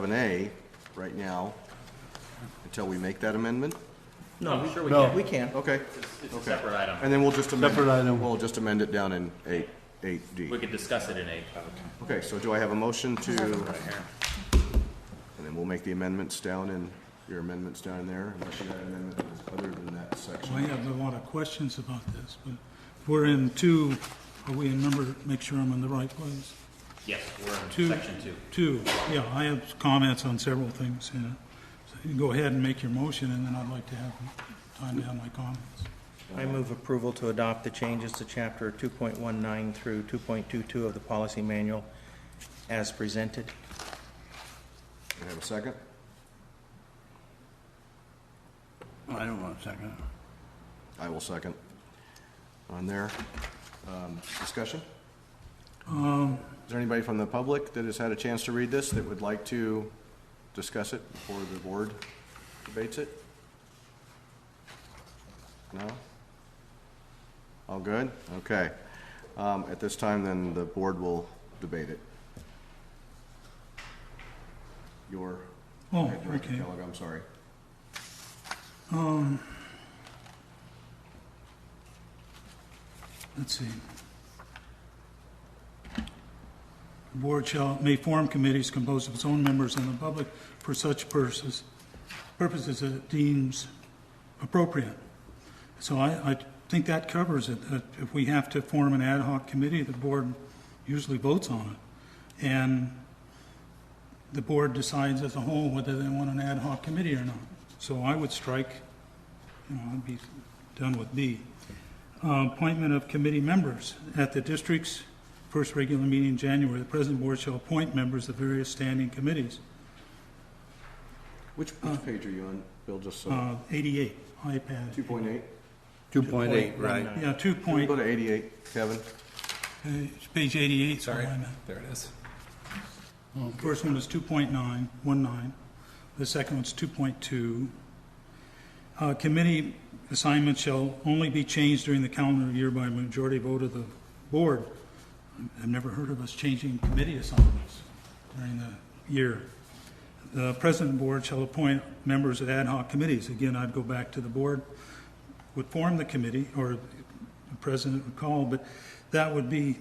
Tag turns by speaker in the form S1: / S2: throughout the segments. S1: seven A right now until we make that amendment?
S2: No,
S3: sure we
S2: no.
S3: can.
S1: We can. Okay.
S3: It's a
S1: Okay.
S3: separate item.
S1: And then we'll just amend.
S2: Separate item.
S1: We'll just amend it down in eight, eight D.
S3: We could discuss it in eight.
S1: Okay, so do I have a motion to? And then we'll make the amendments down in, your amendments down in there, unless you got an amendment that's other than that
S4: I
S1: section.
S4: have a lot of questions about this, but we're in two, are we in number, make sure I'm in the right place?
S3: Yes, we're in
S4: Two.
S3: section two.
S4: Two, yeah, I have comments on several things, you know. So you go ahead and make your motion, and then I'd like to have time to have my comments.
S5: I move approval to adopt the changes to Chapter 2.19 through 2.22 of the policy manual as presented.
S1: Do I have a second?
S2: I don't want a second.
S1: I will second. On there, um, discussion?
S4: Um,
S1: Is there anybody from the public that has had a chance to read this that would like to discuss it before the board debates it? No? All good? Okay. Um, at this time, then the board will debate it. Your.
S4: Oh,
S1: Director
S4: okay.
S1: Kellogg, I'm sorry.
S4: Let's see. The Board shall, may form committees composed of its own members and the public for such purposes, purposes that it deems appropriate. So I, I think that covers it, that if we have to form an ad hoc committee, the board usually votes on it. And the board decides as a whole whether they want an ad hoc committee or not. So I would strike, you know, I'd be done with B. Uh, Appointment of committee members. At the district's first regular meeting in January, the president board shall appoint members of various standing committees.
S1: Which, which page are you on, Bill, just so?
S4: Uh, 88, iPad.
S1: Two point eight?
S2: Two point eight, right.
S4: Yeah, 2
S1: Can we
S4: point,
S1: go to eighty-eight, Kevin?
S4: page- page 88. Sorry,
S6: There it is.
S4: First one was 2.9, 19. The second one's 2.2. Uh, Committee assignments shall only be changed during the calendar year by a majority vote of the board. I've never heard of us changing committee assignments during the year. The president and board shall appoint members of ad hoc committees. Again, I'd go back to the board would form the committee, or the president would call, but that would be,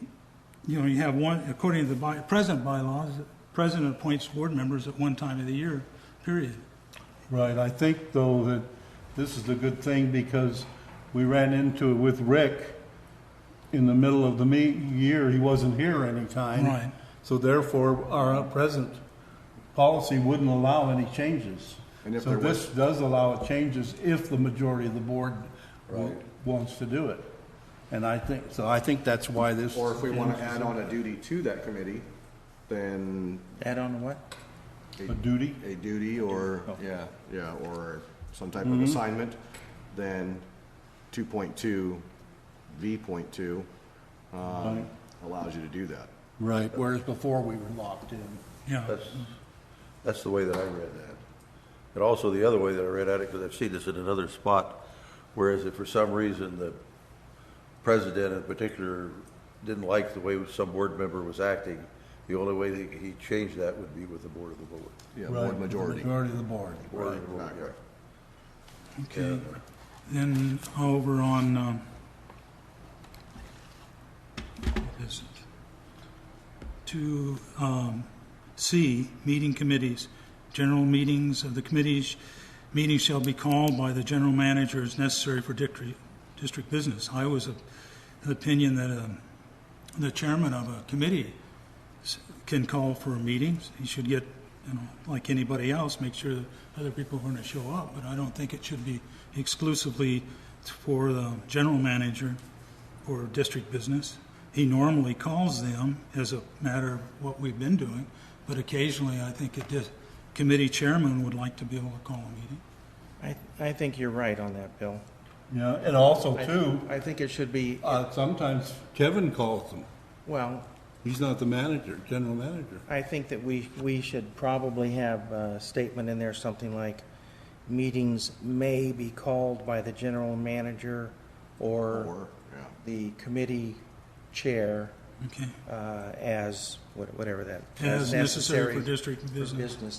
S4: you know, you have one, according to the by, present bylaws, the president appoints board members at one time of the year, period.
S2: Right, I think though that this is a good thing because we ran into it with Rick in the middle of the me, year, he wasn't here any time.
S4: Right.
S2: So therefore, our present policy wouldn't allow any changes.
S1: And if
S2: So
S1: there
S2: this does allow changes if the majority of the board w- wants to do it. And I think, so I think that's why this.
S1: Or if we want to add on a duty to that committee, then
S5: Add on what?
S2: A duty.
S1: a duty or, yeah, yeah, or some type of assignment, then two point two, V point two, um, allows you to do that.
S2: Right, whereas before we were locked in.
S4: Yeah,
S7: That's, that's the way that I read that. And also the other way that I read at it, because I've seen this in another spot, whereas if for some reason the president in particular didn't like the way some board member was acting, the only way that he changed that would be with the board of the board.
S1: Yeah,
S2: Right,
S1: board
S2: the
S1: majority.
S2: Majority of the board.
S7: Board of the board, yeah.
S4: okay. Then over on, um, what is it? To, um, C, meeting committees. General meetings of the committees, meetings shall be called by the general manager as necessary for district, district business. I was of the opinion that, um, the chairman of a committee s- can call for meetings. He should get, you know, like anybody else, make sure that other people are going to show up. But I don't think it should be exclusively for the general manager for district business. He normally calls them as a matter of what we've been doing, but occasionally I think a dis- committee chairman would like to be able to call a meeting.
S5: I, I think you're right on that, Bill.
S2: Yeah, and also
S5: I-
S2: too,
S5: I think it should be,
S8: Uh, sometimes Kevin calls them.
S5: well,
S8: He's not the manager, general manager.
S5: I think that we, we should probably have a statement in there, something like, meetings may be called by the general manager or
S1: Or, yeah,
S5: the committee chair
S4: Okay,
S5: uh, as, what- whatever that.
S4: as necessary for district
S5: for
S4: business.
S5: business